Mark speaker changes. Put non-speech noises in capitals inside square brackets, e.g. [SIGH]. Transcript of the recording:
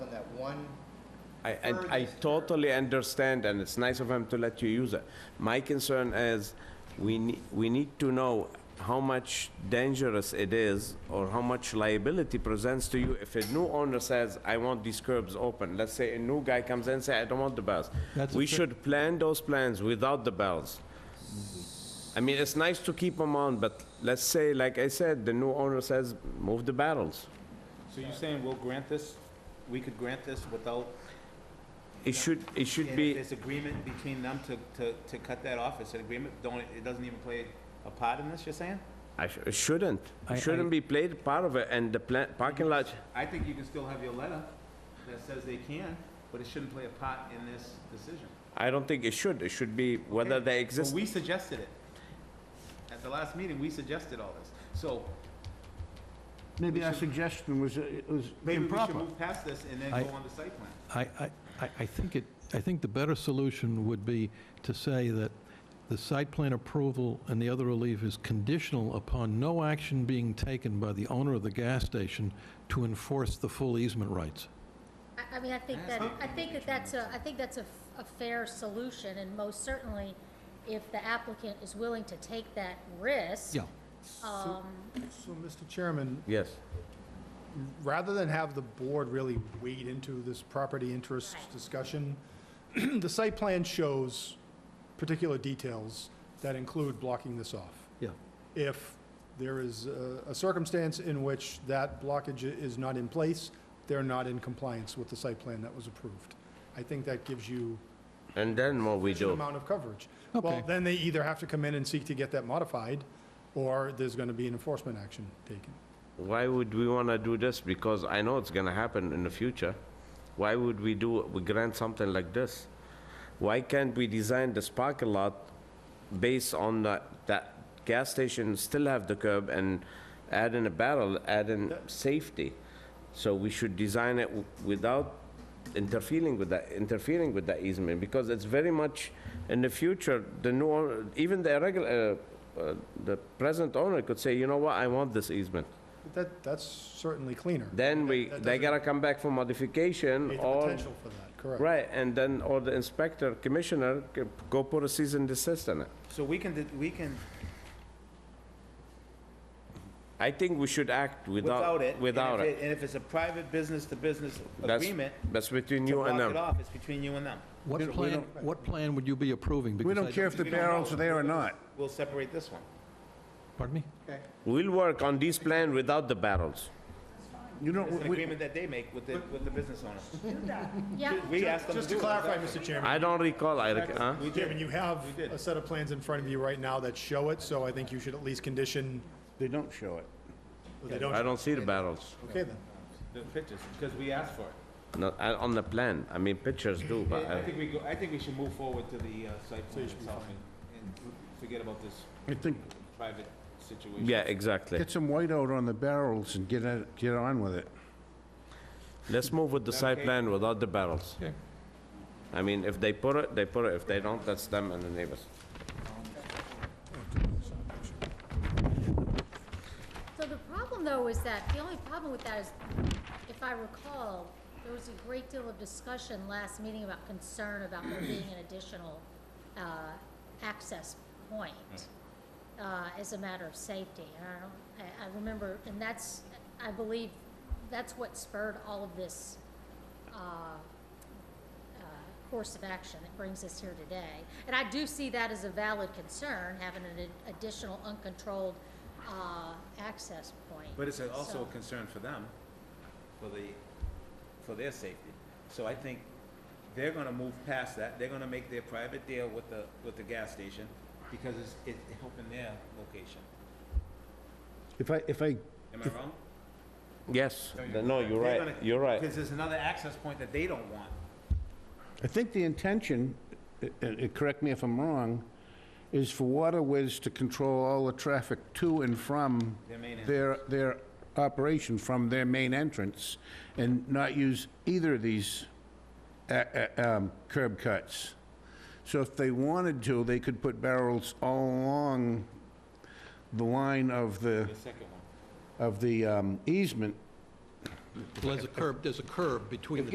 Speaker 1: one,
Speaker 2: I, I, I totally understand, and it's nice of him to let you use it. My concern is, we, ne- we need to know how much dangerous it is, or how much liability presents to you if a new owner says, I want these curbs open. Let's say a new guy comes in and say, I don't want the bells.
Speaker 3: That's a
Speaker 2: We
Speaker 3: fair-
Speaker 2: should plan those plans without the bells. I mean, it's nice to keep them on, but let's say, like I said, the new owner says, move the barrels.
Speaker 4: So you're saying we'll grant this, we could grant this without,
Speaker 2: It should, it
Speaker 4: and
Speaker 2: should
Speaker 4: if
Speaker 2: be,
Speaker 4: there's agreement between them to, to, to cut that off, it's an agreement, don't, it doesn't even play a part in this, you're saying?
Speaker 2: I sh- it shouldn't.
Speaker 3: I-
Speaker 2: It shouldn't be played part of it, and the pla- parking lot,
Speaker 4: I think you can still have your letter that says they can, but it shouldn't play a part in this decision.
Speaker 2: I don't think it should. It should be whether
Speaker 4: Okay.
Speaker 2: they
Speaker 4: But
Speaker 2: exist.
Speaker 4: we suggested it. At the last meeting, we suggested all this. So
Speaker 5: Maybe
Speaker 4: We
Speaker 5: our
Speaker 4: should-
Speaker 5: suggestion was, uh, was
Speaker 4: maybe we should
Speaker 5: improper.
Speaker 4: move past this and then
Speaker 3: I-
Speaker 4: go on the site plan.
Speaker 3: I, I, I- I think it, I think the better solution would be to say that the site plan approval and the other relief is conditional upon no action being taken by the owner of the gas station to enforce the full easement rights.
Speaker 6: I, I mean, I think that, I think that that's a, I think that's a, f- a fair solution, and most certainly, if the applicant is willing to take that risk.
Speaker 3: Yeah.
Speaker 6: Um,
Speaker 7: So, Mr. Chairman,
Speaker 2: Yes.
Speaker 7: rather than have the board really wade into this property interest
Speaker 6: Right.
Speaker 7: discussion, [CLEARS THROAT] the site plan shows particular details that include blocking this off.
Speaker 3: Yeah.
Speaker 7: If there is a a circumstance in which that blockage i- is not in place, they're not in compliance with the site plan that was approved. I think that gives you
Speaker 2: And then what we
Speaker 7: sufficient
Speaker 2: do?
Speaker 7: amount of coverage.
Speaker 3: Okay.
Speaker 7: Well, then they either have to come in and seek to get that modified, or there's going to be an enforcement action taken.
Speaker 2: Why would we want to do this? Because I know it's going to happen in the future. Why would we do, we grant something like this? Why can't we design this parking lot based on that, that gas station still have the curb and add in a barrel, add in safety? So we should design it w- without interfering with that, interfering with that easement, because it's very much, in the future, the new, owner- even the regular, uh, the present owner could say, you know what, I want this easement.
Speaker 7: But That, that's certainly cleaner.
Speaker 2: Then
Speaker 7: That-
Speaker 2: we,
Speaker 7: that
Speaker 2: they
Speaker 7: doesn't
Speaker 2: gotta come back for modification
Speaker 7: create the
Speaker 2: or,
Speaker 7: Potential for that, correct.
Speaker 2: right, and then, or the inspector, commissioner, c- go put a cease and desist on it.
Speaker 4: So we can, we can,
Speaker 2: I think we should act
Speaker 4: without
Speaker 2: without,
Speaker 4: it. and if
Speaker 2: without it.
Speaker 4: And if it's a private business-to-business
Speaker 2: That's-
Speaker 4: agreement,
Speaker 2: That's between
Speaker 4: to
Speaker 2: you
Speaker 4: block
Speaker 2: and
Speaker 4: it
Speaker 2: them.
Speaker 4: off, it's between you and them.
Speaker 3: What plan, what plan would you be approving?
Speaker 5: We
Speaker 3: Because I
Speaker 5: don't care if the
Speaker 4: we don't know.
Speaker 5: barrels are there or not.
Speaker 4: We'll separate this one.
Speaker 3: Pardon me?
Speaker 2: We'll work on this plan without the barrels.
Speaker 5: You don't,
Speaker 4: It's an
Speaker 5: we-
Speaker 4: agreement that they make with the, with the business owner.
Speaker 6: yeah,
Speaker 4: We asked them to
Speaker 7: Just
Speaker 4: do
Speaker 7: to
Speaker 4: it.
Speaker 7: clarify, Mr. Chairman,
Speaker 2: I don't recall, I, rec- huh?
Speaker 4: We did.
Speaker 7: Chairman, you have
Speaker 4: We did.
Speaker 7: a set of plans in front of you right now that show it, so I think you should at least condition
Speaker 5: they don't show it.
Speaker 7: that they
Speaker 2: I
Speaker 7: don't.
Speaker 2: don't see the barrels,
Speaker 7: Okay, then.
Speaker 4: The pictures, because we asked for it.
Speaker 2: No, I- on the plan. I mean, pictures do, but
Speaker 4: I
Speaker 2: I-
Speaker 4: think we go, I think we should move forward to the uh, site plan itself and and forget about this
Speaker 5: I think,
Speaker 4: private situation.
Speaker 2: yeah, exactly.
Speaker 5: get some white out on the barrels and get it, get on with it.
Speaker 2: Let's move with the side plan without the barrels.
Speaker 3: Okay.
Speaker 2: I mean, if they put it, they put it. If they don't, that's them and the neighbors.
Speaker 6: so the problem though is that, the only problem with that is, if I recall, there was a great deal of discussion last meeting about concern about there being an additional, uh, access point,
Speaker 4: Hmm.
Speaker 6: uh, as a matter of safety, and I don't, I, I remember, and that's, I believe, that's what spurred all of this, uh, uh, course of action that brings us here today. And I do see that as a valid concern, having an ad- additional uncontrolled uh, access point.
Speaker 4: But it's a- also
Speaker 6: So-
Speaker 4: a concern for them, for the, for their safety. So I think they're gonna move past that, they're gonna make their private deal with the, with the gas station, because it's, it's helping their location.
Speaker 5: If I, if I,
Speaker 4: Am I wrong?
Speaker 2: Yes, no, you're
Speaker 4: They're
Speaker 2: right,
Speaker 4: gonna-
Speaker 2: you're right.
Speaker 4: Because there's another access point that they don't want.
Speaker 5: I think the intention, uh, uh, correct me if I'm wrong, is for Waterways to control all the traffic to and from
Speaker 4: Their main entrance.
Speaker 5: their, their operation from their main entrance and not use either of these uh, uh, um, curb cuts. So if they wanted to, they could put barrels all along the line of the,
Speaker 4: The second one.
Speaker 5: of the um, easement
Speaker 3: Well, There's a curb, there's a curb between the